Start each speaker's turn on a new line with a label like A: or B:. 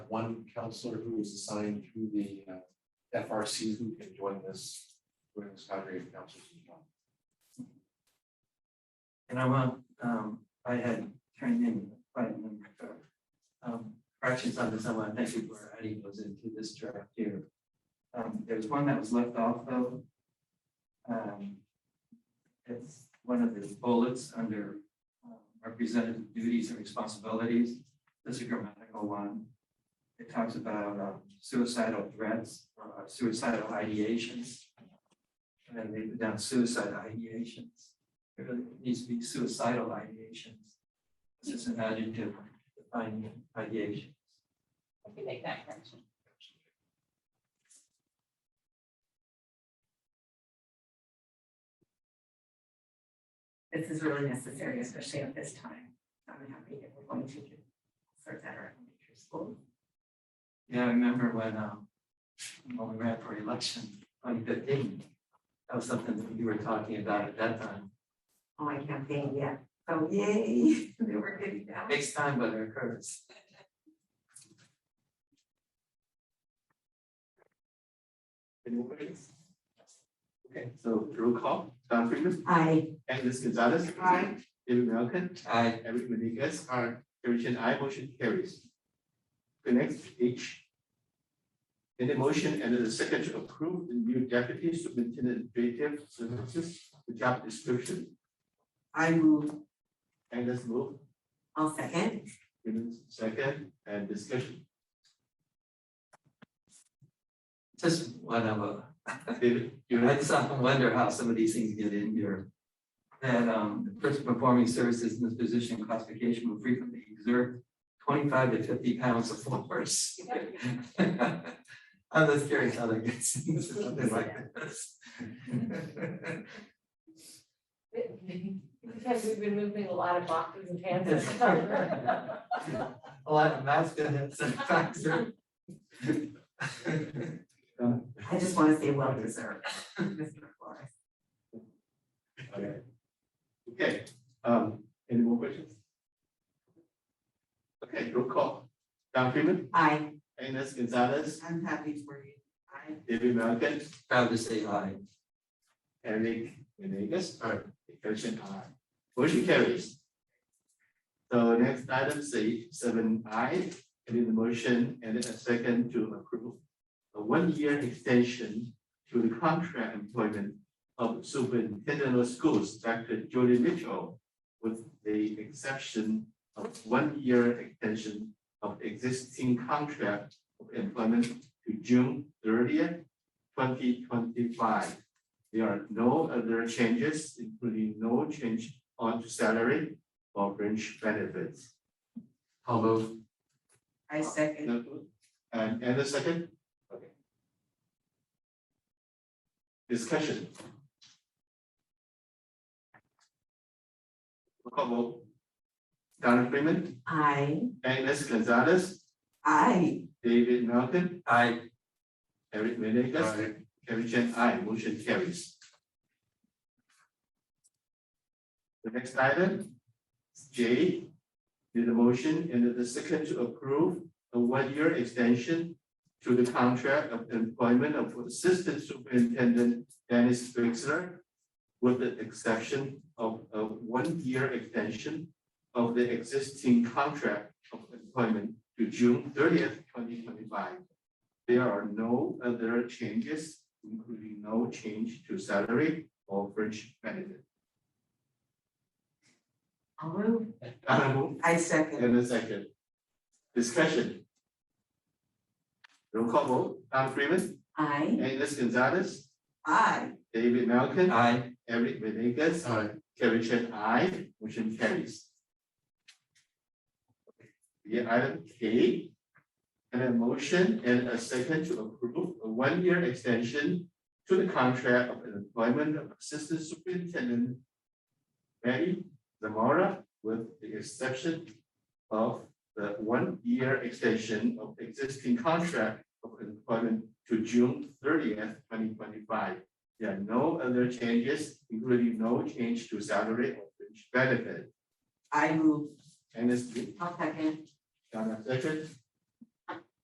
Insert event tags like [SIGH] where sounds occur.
A: one counselor who is assigned to the uh, FRC who can join this, join this cadre of counselors. as well.
B: And I want, um, I had turned in quite a number of, um, corrections on this, I want to thank you for adding those into this draft here. Um, there was one that was left off though. Um, it's one of the bullets under um, representative duties and responsibilities. This is a grammatical one. It talks about um, suicidal threats, or suicidal ideations. And they put down suicide ideations it really needs to be suicidal ideations. This is an adjective defining ideation.
C: I can make that correction. This is really necessary, especially at this time. I'm happy that we're going to start that our elementary school.
B: Yeah, I remember when, um, when we ran for election twenty fifteen, that was something that we were talking about at that time.
C: Oh, I campaign, yeah. Oh, yay, [LAUGHS] they were getting down.
B: Next time, but it occurs.
D: Anybody? Okay, so roll call, Don Freeman,
C: I,
D: Agnes Gonzalez.
C: Aye.
D: David Malcolm,
B: I,
D: Eric Menegas,
A: Aye.
D: Harrison I, motion carries. The next H. In the motion and in the second to approve the new deputy superintendent administrative services, the job description.
C: I move,
D: Agnes move,
C: I'll second.
D: Freeman second, and discussion.
B: just one of a,
D: David, you
B: I
D: have
B: just often wonder how some of these things get in here. That um, the person performing services in this position classification will frequently exert twenty-five to fifty pounds of force. [LAUGHS] I'm just curious how that gets into something like [LAUGHS] this.
E: Because we've been moving a lot of boxes and pans.
B: A lot of masculine and factor. [LAUGHS]
D: um,
C: I just want to say well deserved, [LAUGHS] Mr. Flores.
D: Okay. Okay, um, any more questions? Okay, roll call. Don Freeman,
C: I,
D: Agnes Gonzalez,
C: I'm happy for you. I,
D: David Malcolm,
B: Proud to say aye.
D: Eric Menegas, or Christian R. Motion carries. So next item, say seven I, and in the motion, and a second to approve a one-year extension to the contract employment of superintendent of schools, Dr. Jody Mitchell, with the exception of one-year extension of existing contract of employment to June thirtieth, twenty twenty-five. There are no other changes, including no change on to salary or fringe benefits. How about?
C: I second.
D: And, and a second? Okay. Discussion. Roll call vote. Donna Freeman,
C: I,
D: Agnes Gonzalez,
C: I,
D: David Malcolm,
B: Aye.
D: Eric Menegas,
A: Aye.
D: Carrie Chen, I motion carries. The next item, J, did the motion and the second to approve a one-year extension to the contract of employment of Assistant Superintendent Dennis Fixler with the exception of a one-year extension of the existing contract of employment to June thirtieth, twenty twenty-five. There are no other changes, including no change to salary or fringe benefit.
C: [LAUGHS] I'll move.
D: Donna move
C: I second.
D: and a second. Discussion. Roll call vote, Don Freeman,
C: I,
D: Agnes Gonzalez,
C: I,
D: David Malcolm,
B: Aye.
D: Eric Menegas,
A: Aye.
D: Kevin Chen, I, motion carries. The item K, and a motion and a second to approve a one-year extension to the contract of employment of Assistant Superintendent Betty Zamora with the exception of the one-year extension of existing contract of employment to June thirtieth, twenty twenty-five. There are no other changes, including no change to salary or fringe benefit.
C: I move.
D: And this,
C: I'll second.
D: Donna second,